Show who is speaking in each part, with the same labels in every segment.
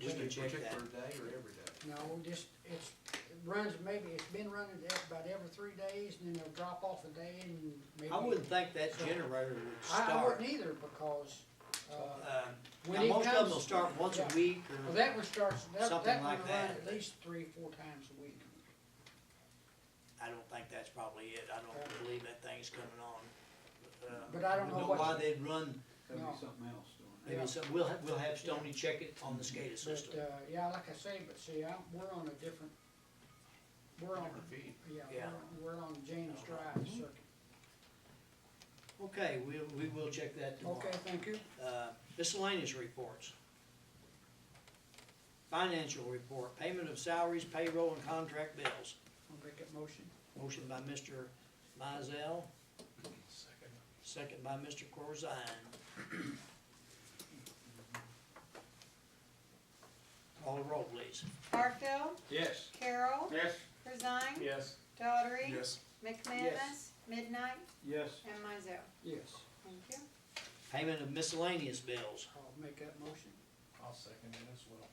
Speaker 1: Just
Speaker 2: Can
Speaker 1: a
Speaker 2: you check that?
Speaker 1: particular day or every day?
Speaker 3: uh, No, just, it's, it runs maybe, it's been running e- about every three days and then it'll drop off a day and maybe.
Speaker 2: I wouldn't think that generator would
Speaker 3: I, I
Speaker 2: start.
Speaker 3: wouldn't either because, uh,
Speaker 2: Uh,
Speaker 3: when
Speaker 2: Now,
Speaker 3: it
Speaker 2: most of them will
Speaker 3: comes-
Speaker 2: start once a
Speaker 3: yeah.
Speaker 2: week
Speaker 3: well,
Speaker 2: or,
Speaker 3: that one starts, that,
Speaker 2: Something
Speaker 3: that one
Speaker 2: like
Speaker 3: will run
Speaker 2: that.
Speaker 3: at least three, four times a week.
Speaker 2: I don't think that's probably it. I don't believe that thing's coming on. Uh,
Speaker 3: But I don't know what-
Speaker 2: Why they'd run,
Speaker 4: That'd
Speaker 3: No.
Speaker 4: be something else doing
Speaker 2: maybe
Speaker 3: Yeah.
Speaker 2: some, we'll have, we'll have Stoney check it on the SCADA
Speaker 3: But,
Speaker 2: system.
Speaker 3: uh, yeah, like I say, but see, I, we're on a different, we're on,
Speaker 1: Different feed.
Speaker 3: yeah,
Speaker 2: Yeah.
Speaker 3: we're, we're on James Drive circuit.
Speaker 2: Okay, we, we will check that tomorrow.
Speaker 3: Okay, thank you.
Speaker 2: Uh, miscellaneous reports. Financial report, payment of salaries, payroll, and contract bills.
Speaker 3: I'll make that motion.
Speaker 2: Motion by Mr. Mizell,
Speaker 1: Second.
Speaker 2: second by Mr. Corzine. Call the roll, please.
Speaker 5: Barfield,
Speaker 4: Yes.
Speaker 5: Carol,
Speaker 4: Yes.
Speaker 5: Corzine.
Speaker 4: Yes.
Speaker 5: Daughtry.
Speaker 1: Yes.
Speaker 5: McManus, Midnight,
Speaker 4: Yes.
Speaker 5: and Mizell.
Speaker 3: Yes,
Speaker 5: Thank you.
Speaker 2: Payment of miscellaneous bills.
Speaker 3: I'll make that motion.
Speaker 1: I'll second it as well.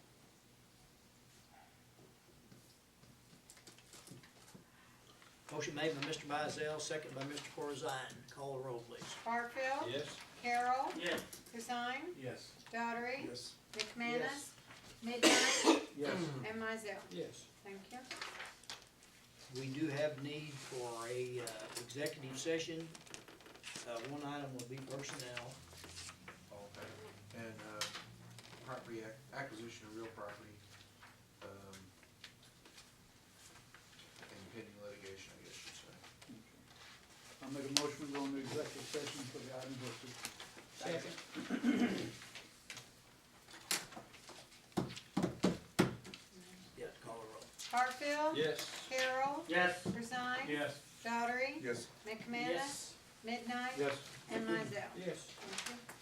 Speaker 2: Motion made by Mr. Mizell, second by Mr. Corzine. Call the roll, please.
Speaker 5: Barfield,
Speaker 4: Yes.
Speaker 5: Carol,
Speaker 4: Yes.
Speaker 5: Corzine,
Speaker 1: Yes.
Speaker 5: Daughtry,
Speaker 1: Yes.
Speaker 5: McManus, Midnight,
Speaker 4: Yes.
Speaker 5: and Mizell.
Speaker 3: Yes.
Speaker 5: Thank you.
Speaker 2: We do have need for a uh, executive session. Uh, One item will be personnel.
Speaker 1: Okay. And, uh, property ac- acquisition of real property, um, and pending litigation, I guess you'd say.
Speaker 4: I'll make a motion, we go into executive session for the items listed.
Speaker 3: Second.
Speaker 2: Yeah, call the roll.
Speaker 5: Barfield.
Speaker 4: Yes.
Speaker 5: Carol,
Speaker 4: Yes.
Speaker 5: Corzine.
Speaker 4: Yes.
Speaker 5: Daughtry.
Speaker 1: Yes.
Speaker 5: McManus, Midnight,
Speaker 4: Yes.
Speaker 5: and Mizell.
Speaker 3: Yes.
Speaker 5: Thank you.